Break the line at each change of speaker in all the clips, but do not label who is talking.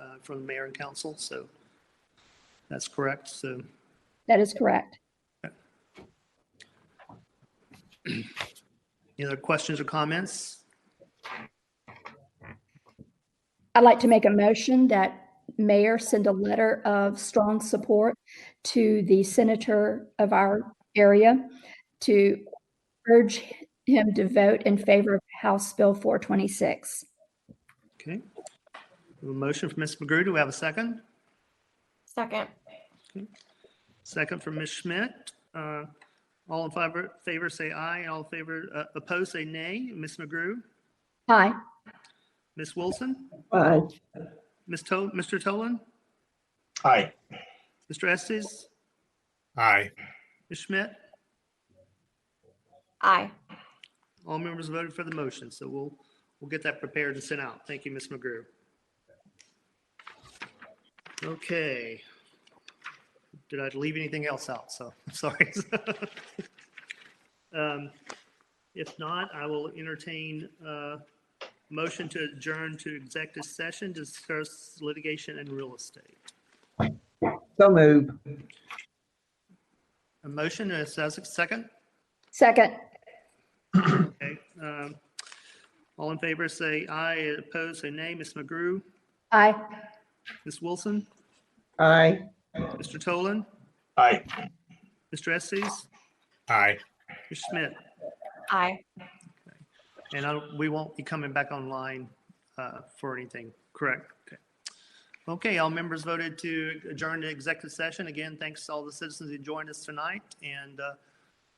uh, from the mayor and council, so that's correct. So
That is correct.
any other questions or comments?
I'd like to make a motion that mayor send a letter of strong support to the senator of our area to urge him to vote in favor of House Bill 426.
Okay. A motion from Ms. McGrew. Do we have a second?
Second.
Second from Ms. Schmidt. Uh, All in favor, favor say aye. All in favor, uh, opposed, say nay. Ms. McGrew,
Aye.
Ms. Wilson,
Aye.
Ms. To, Mr. Tolan,
Aye.
Mr. Estes,
Aye.
Ms. Schmidt.
Aye.
All members voted for the motion, so we'll, we'll get that prepared and sent out. Thank you, Ms. McGrew. Okay. Did I leave anything else out? So, sorry. Um, If not, I will entertain a motion to adjourn to executive session, to discuss litigation and real estate.
So move.
A motion, is there a second?
Second.
Okay. um, All in favor, say aye. Opposed, say nay. Ms. McGrew?
Aye.
Ms. Wilson?
Aye.
Mr. Tolan,
Aye.
Mr. Estes,
Aye.
Mr. Schmidt,
Aye.
and I, we won't be coming back online uh, for anything, correct? Okay. Okay, all members voted to adjourn to executive session. Again, thanks to all the citizens who joined us tonight, and uh,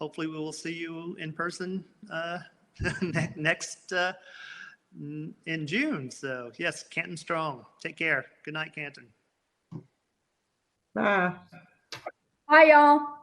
hopefully we will see you in person uh, ne- next, uh, n- in June. So yes, Canton Strong, take care. Good night, Canton.
Bye.
Bye, y'all.